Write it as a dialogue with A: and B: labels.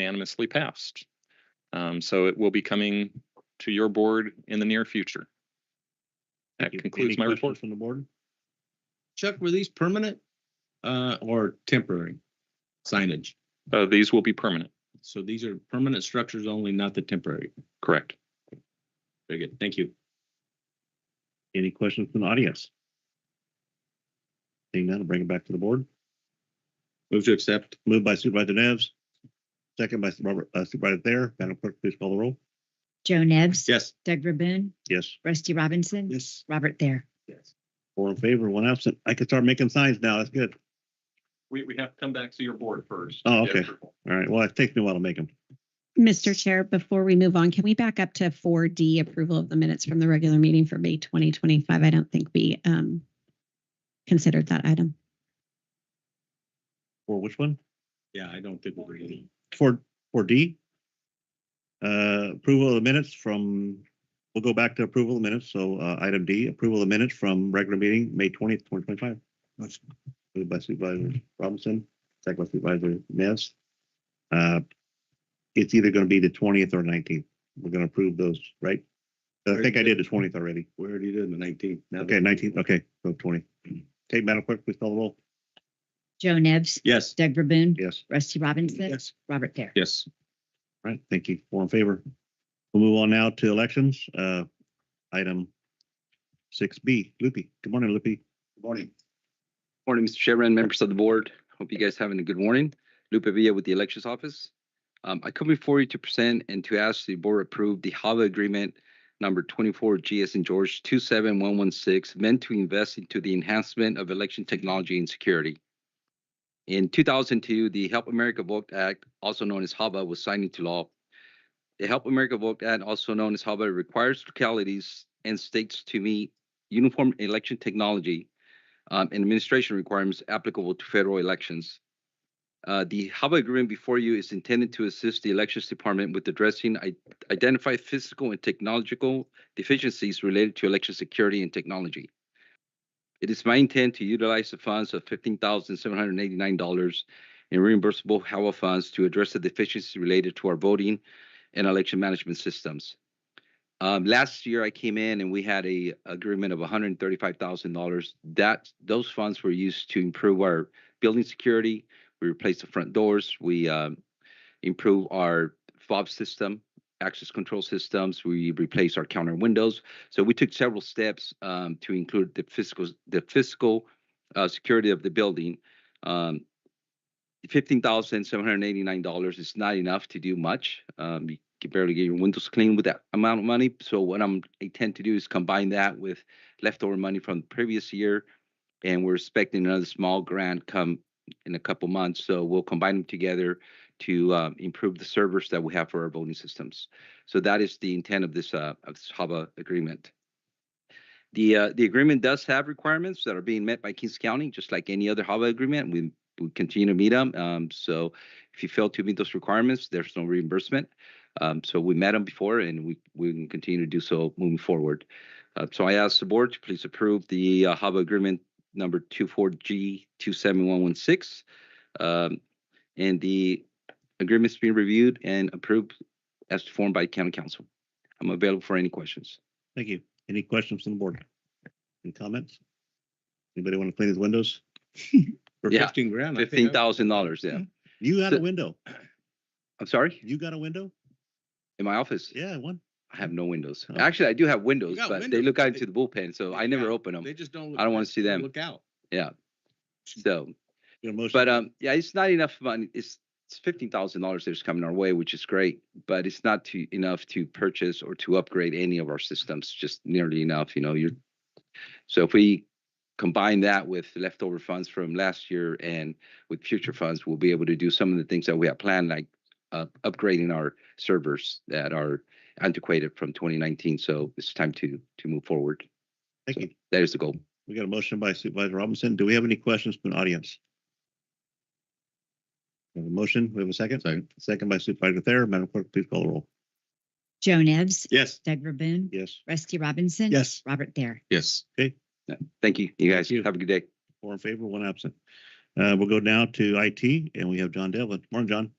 A: unanimously passed. Um, so it will be coming to your board in the near future. That
B: Thank you.
A: concludes
B: Any
A: my
B: questions
A: report.
B: From the board? Chuck, were these permanent, uh, or temporary signage?
A: Uh, these will be permanent,
B: So these are permanent structures only, not the temporary.
A: correct?
B: Very good. Thank you. Any questions from the audience? Seeing none, I'll bring it back to the board. Move to accept. Moved by Supervisor Nevs, second by Robert, uh, Supervisor Thayer. Madam Clerk, please call the roll.
C: Joe Nevs.
B: Yes.
C: Doug Verboon.
B: Yes.
C: Rusty Robinson.
B: Yes.
C: Robert Thayer.
B: Yes. Four in favor, one absent. I can start making signs now. That's good.
A: We, we have to come back to your board first.
B: Oh, okay. All right. Well, it takes me a while to make them.
D: Mr. Chair, before we move on, can we back up to four D approval of the minutes from the regular meeting for May twenty twenty-five? I don't think we um considered that item.
B: For which one?
E: Yeah, I don't think we're ready.
B: For, for D? Uh, approval of the minutes from, we'll go back to approval of the minutes. So, uh, item D, approval of the minutes from regular meeting, May twentieth, twenty twenty-five. Moved by Supervisor Robinson, second by Supervisor Ness. Uh, it's either gonna be the twentieth or nineteenth. We're gonna approve those, right? I think I did the twentieth already.
E: We already did the nineteenth.
B: Okay, nineteenth, okay, so twenty. Okay, Madam Clerk, please call the roll.
C: Joe Nevs.
E: Yes.
C: Doug Verboon.
B: Yes.
C: Rusty Robinson. Robert Thayer.
A: Yes,
B: All Right, thank you. Four in favor. We'll move on now to elections, uh, item six B. Loopy, good morning, Loopy.
E: Good Morning.
F: Morning, Mr. Chairman, members of the board. Hope you guys having a good morning. Lupe Villa with the Elections Office. Um, I come before you to present and to ask the board approve the HAVA agreement number twenty-four GS and George two seven one one six meant to invest into the enhancement of election technology and security. In two thousand two, the Help America Vote Act, also known as HAVA, was signed into law. The Help America Vote Act, also known as HAVA, requires localities and states to meet uniform election technology um, and administration requirements applicable to federal elections. Uh, the HABA agreement before you is intended to assist the Elections Department with addressing i- identified physical and technological deficiencies related to election security and technology. It is my intent to utilize the funds of $15,789 in reimbursable HAWA funds to address the deficiencies related to our voting and election management systems. Um, last year I came in and we had a agreement of hundred and thirty-five thousand dollars. That, those funds were used to improve our building security. We replaced the front doors. We, um, improve our fob system, access control systems. We replaced our counter windows. So we took several steps, um, to include the fiscal, the fiscal, uh, security of the building. Um, fifteen thousand seven hundred eighty-nine dollars is not enough to do much. Um, you can barely get your windows clean with that amount of money. So what I'm intend to do is combine that with leftover money from the previous year, and we're expecting another small grant come in a couple months. So we'll combine them together to uh, improve the servers that we have for our voting systems. So that is the intent of this uh, of this HABA agreement. The uh, the agreement does have requirements that are being met by Kings County, just like any other HABA agreement. We we continue to meet them. Um, so if you fail to meet those requirements, there's no reimbursement. Um, so we met them before and we, we can continue to do so moving forward. Uh, so I ask the board to please approve the uh, HABA agreement number 24G27116. Um, and the agreement's being reviewed and approved as formed by county council. I'm available for any questions.
B: Thank you. Any questions from the board? Any comments? Anybody want to clean his windows?
E: For
F: Yeah.
E: fifteen grand. I Mm-hmm. think I-
F: $15,000, yeah.
B: You got a
F: So-
B: window.
F: I'm sorry,
B: You got a window?
F: in my office?
B: Yeah, one.
F: I have no windows.
B: Oh.
F: Actually, I do have windows,
E: got
F: but they
E: windows,
F: look
E: but
F: out into
E: they-
F: the bullpen, so
E: they
F: I never
E: got-
F: open them.
E: They just don't. look
F: I don't wanna
E: nice.
F: see
E: They
F: them.
E: Look out.
F: So,
B: Your motion.
F: but um, yeah, it's not enough money. It's it's fifteen thousand dollars that's coming our way, which is great, but it's not to enough to purchase or to upgrade any of our systems. Just nearly enough, you know. You're so if we combine that with leftover funds from last year and with future funds, we'll be able to do some of the things that we have planned, like uh, upgrading our servers that are antiquated from 2019. So it's time to to move forward.
B: Thank you.
F: That is the goal.
B: We got a motion by Supervisor Robinson. Do we have any questions from the audience? We have a motion. We have a second. Second. Second by Supervisor Thayer. Madam Clerk, please call the roll.
C: Joe Nevs.
E: Yes.
C: Doug Verboon.
B: Yes.
C: Rusty Robinson.
E: Yes.
C: Robert Thayer.
A: yes.
F: Thank you. You guys
B: you.
F: have a good day.
B: Four in favor, one absent. Uh, we'll go now to IT and we have John Devlin. Morning, John.